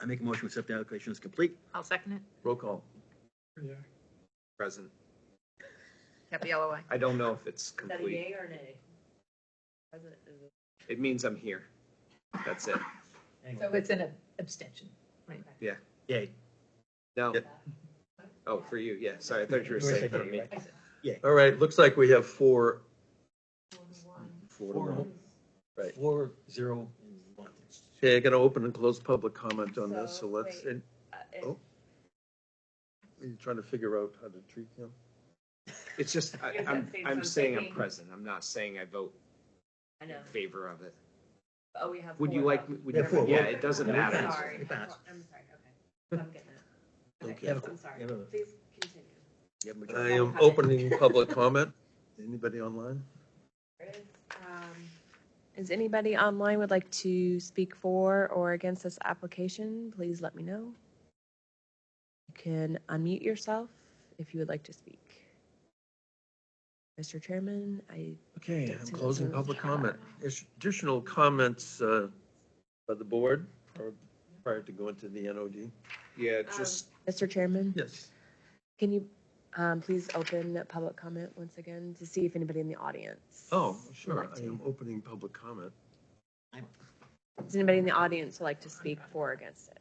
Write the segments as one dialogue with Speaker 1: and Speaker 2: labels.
Speaker 1: I make a motion to accept the allocation as complete.
Speaker 2: I'll second it.
Speaker 3: Roll call.
Speaker 4: Yeah.
Speaker 3: Present.
Speaker 2: Capella, aye.
Speaker 3: I don't know if it's
Speaker 5: Is that a
Speaker 3: complete.
Speaker 5: yay or nay? President, is it-
Speaker 3: It means I'm here. That's it.
Speaker 2: So it's an ab- abstention. Right.
Speaker 1: Yay.
Speaker 3: No. Oh, for you, yeah. Sorry, I thought you were
Speaker 1: You were
Speaker 3: saying for
Speaker 1: saying
Speaker 3: me.
Speaker 1: yay,
Speaker 4: All right, looks like we have four,
Speaker 5: Uh,
Speaker 3: Four to one. Right.
Speaker 1: Four, zero, and one.
Speaker 4: okay, I'm gonna open and close public comment on this, so
Speaker 5: So,
Speaker 4: let's,
Speaker 5: wait.
Speaker 4: and
Speaker 5: Uh, it-
Speaker 4: Oh. you're trying to figure out how to treat him.
Speaker 3: It's just, I,
Speaker 5: Is that
Speaker 3: I'm,
Speaker 5: saying
Speaker 3: I'm saying I'm
Speaker 5: something?
Speaker 3: present. I'm not saying I vote
Speaker 5: I
Speaker 3: in
Speaker 5: know.
Speaker 3: favor of it.
Speaker 5: Oh, we have.
Speaker 3: Would you
Speaker 5: four
Speaker 3: like,
Speaker 5: though.
Speaker 3: would
Speaker 1: Yeah,
Speaker 3: you,
Speaker 1: four.
Speaker 3: yeah, it doesn't
Speaker 1: Yeah, we
Speaker 3: matter.
Speaker 1: can.
Speaker 5: Sorry,
Speaker 1: It
Speaker 5: I'm
Speaker 1: passed.
Speaker 5: I'm sorry, okay. I'm getting it.
Speaker 4: Okay. Uh,
Speaker 5: Okay,
Speaker 1: Yeah,
Speaker 5: I'm sorry.
Speaker 1: yeah, no, no.
Speaker 5: Please continue.
Speaker 1: You have a
Speaker 4: I
Speaker 1: majority.
Speaker 4: am opening public comment. Anybody online?
Speaker 5: Is, um,
Speaker 6: Is anybody online would like to speak for or against this application? Please let me know. You can unmute yourself if you would like to speak. Mr. Chairman, I
Speaker 4: Okay, I'm
Speaker 6: Doesn't-
Speaker 4: closing
Speaker 6: doesn't-
Speaker 4: public comment. Is- Additional comments uh, by the board or prior to going to the NOD?
Speaker 3: Yeah,
Speaker 5: Um,
Speaker 3: just,
Speaker 6: Mr. Chairman,
Speaker 4: Yes.
Speaker 6: can you um, please open public comment once again to see if anybody in the audience?
Speaker 4: Oh,
Speaker 6: would
Speaker 4: sure,
Speaker 6: like
Speaker 4: I
Speaker 6: to-
Speaker 4: am opening public comment.
Speaker 6: Does anybody in the audience would like to speak for or against it?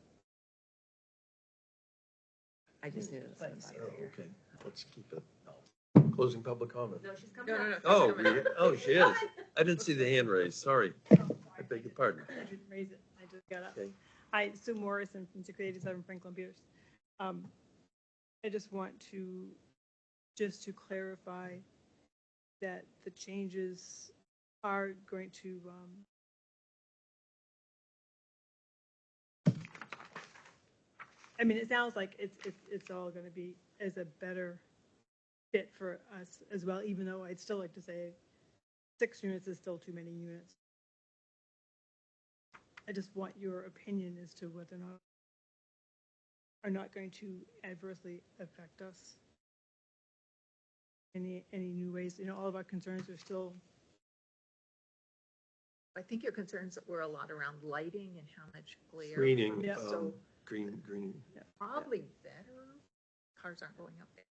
Speaker 6: I just knew. it was
Speaker 4: Oh,
Speaker 6: somebody over here.
Speaker 4: okay, let's keep it. Closing public comment.
Speaker 5: no, she's coming
Speaker 2: No, no,
Speaker 5: up.
Speaker 2: no.
Speaker 4: Oh, we- oh, she is. I didn't see the hand raised, sorry. I beg your pardon.
Speaker 7: I didn't raise it. I just got up.
Speaker 4: Okay.
Speaker 7: Hi, Sue Morrison from 687 Franklin Pierce. Um, I just want to, just to clarify that the changes are going to, um, um, I mean, it sounds like it's, it's, it's all going to be as a better fit for us as well, even though I'd still like to say six units is still too many units. I just want your opinion as to whether or not are not going to adversely affect us. Any, any new ways, you know, all of our concerns are still,
Speaker 2: I think your concerns were a lot around lighting and how much glare.
Speaker 4: Screening,
Speaker 7: Yeah.
Speaker 4: um, green, green,
Speaker 2: Probably better. Cars aren't going up there.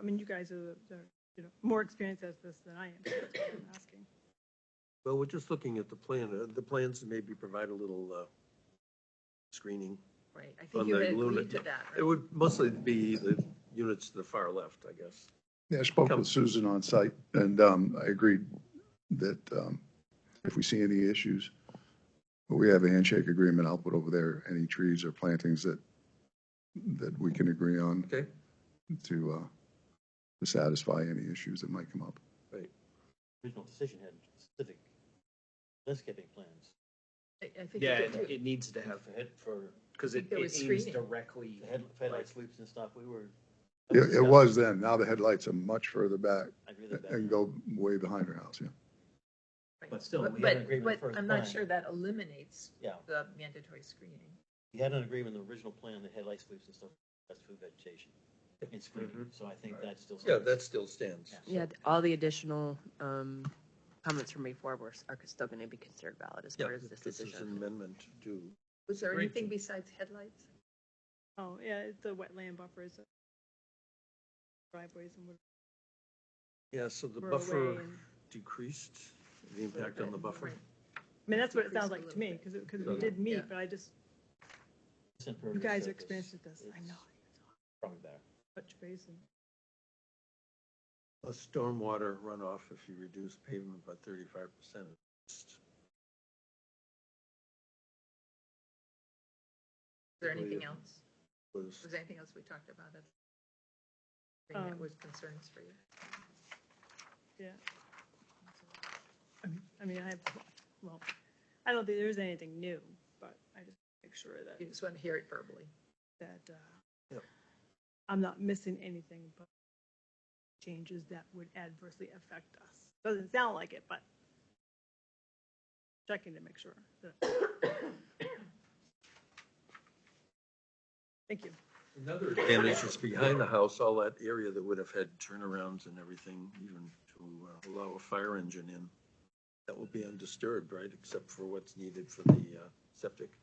Speaker 7: I mean, you guys are, are, you know, more experienced at this than I am, so that's why I'm asking.
Speaker 4: well, we're just looking at the plan, Uh, the plans maybe provide a little uh, screening.
Speaker 2: Right. I
Speaker 4: On
Speaker 2: think you
Speaker 4: the
Speaker 2: had
Speaker 4: lunar-
Speaker 2: agreed to that.
Speaker 4: It
Speaker 2: right?
Speaker 4: would mostly be the units to the far left, I guess.
Speaker 8: Yeah, I spoke
Speaker 4: Come.
Speaker 8: with Susan on site and um, I agreed that um, if we see any issues, we have a handshake agreement. I'll put over there any trees or plantings that, that we can agree on.
Speaker 4: Okay.
Speaker 8: To, uh, to satisfy any issues that might come up.
Speaker 1: Original decision had specific landscaping plans.
Speaker 2: I I think
Speaker 3: yeah,
Speaker 2: you did
Speaker 3: it,
Speaker 2: too.
Speaker 3: it needs to have,
Speaker 1: For head, for
Speaker 3: because it
Speaker 2: There
Speaker 3: it
Speaker 2: was
Speaker 3: aims
Speaker 2: screening.
Speaker 3: directly.
Speaker 1: the head, for headlight sweeps and stuff, we were.
Speaker 8: It, it was then. Now the headlights are much further back
Speaker 1: I agree with that.
Speaker 8: and go way behind her house, yeah.
Speaker 2: Right.
Speaker 1: But still, we
Speaker 2: But-
Speaker 1: had an agreement
Speaker 2: but
Speaker 1: first
Speaker 2: I'm not
Speaker 1: time.
Speaker 2: sure that eliminates
Speaker 1: Yeah,
Speaker 2: the mandatory screening.
Speaker 1: we had an agreement, in the original plan, the headlight sweeps and stuff, that's food vegetation and screening, so I think that's still.
Speaker 4: Yeah, that still stands.
Speaker 6: Yeah, th- all the additional um, comments from before were, s- are still going to be considered valid as
Speaker 4: Yeah,
Speaker 6: part of this
Speaker 4: this is an
Speaker 6: decision.
Speaker 4: amendment to,
Speaker 2: Was there
Speaker 4: Great.
Speaker 2: anything besides headlights?
Speaker 7: Oh, yeah, it's the wetland buffers, uh, driveways and whatever.
Speaker 4: yeah, so the
Speaker 7: we're away
Speaker 4: buffer
Speaker 7: and-
Speaker 4: decreased, the impact on the buffer.
Speaker 2: Right.
Speaker 7: I mean, that's what it sounds
Speaker 2: Decreased a
Speaker 7: like to me,
Speaker 2: little
Speaker 7: because, because
Speaker 3: Yeah.
Speaker 7: we did
Speaker 2: Yeah.
Speaker 7: meet, but I just,
Speaker 1: It's impervious
Speaker 7: you guys are
Speaker 1: surface.
Speaker 7: experienced at this, I
Speaker 1: It's
Speaker 7: know.
Speaker 1: Probably better.
Speaker 7: Touch base and.
Speaker 4: A stormwater runoff, if you reduce pavement by thirty-five percent.
Speaker 2: Is there anything else?
Speaker 4: Was,
Speaker 2: Was there anything else we talked about? that- Thing that
Speaker 7: Um,
Speaker 2: was concerns for you?
Speaker 7: Yeah. I mean- I mean, I have, well, I don't think there's anything new, but I just make sure
Speaker 2: You
Speaker 7: that,
Speaker 2: just want to hear it verbally.
Speaker 7: that, uh,
Speaker 4: Yep.
Speaker 7: I'm not missing anything but changes that would adversely affect us. Doesn't sound like it, but checking to make sure. that- Thank you.
Speaker 4: another advantage is behind the house, all that area that would have had turnarounds and everything, even to uh, allow a fire engine in. That will be undisturbed, right, except for what's needed for the uh, septic.